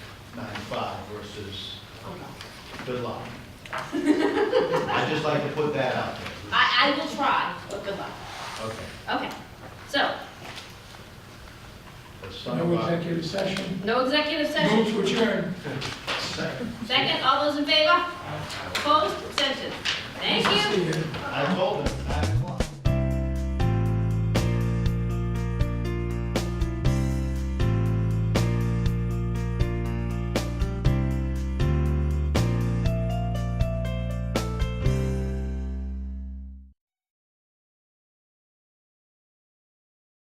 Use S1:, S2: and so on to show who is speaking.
S1: five versus good luck. I'd just like to put that out there.
S2: I, I will try, but good luck.
S1: Okay.
S2: Okay, so,
S1: Let's talk
S3: No
S1: about,
S3: executive session.
S2: no executive
S3: Move
S2: session.
S3: to adjourn.
S2: Second, all those in favor? Opposed, abstentions? Thank you.
S3: See you.
S1: I told him.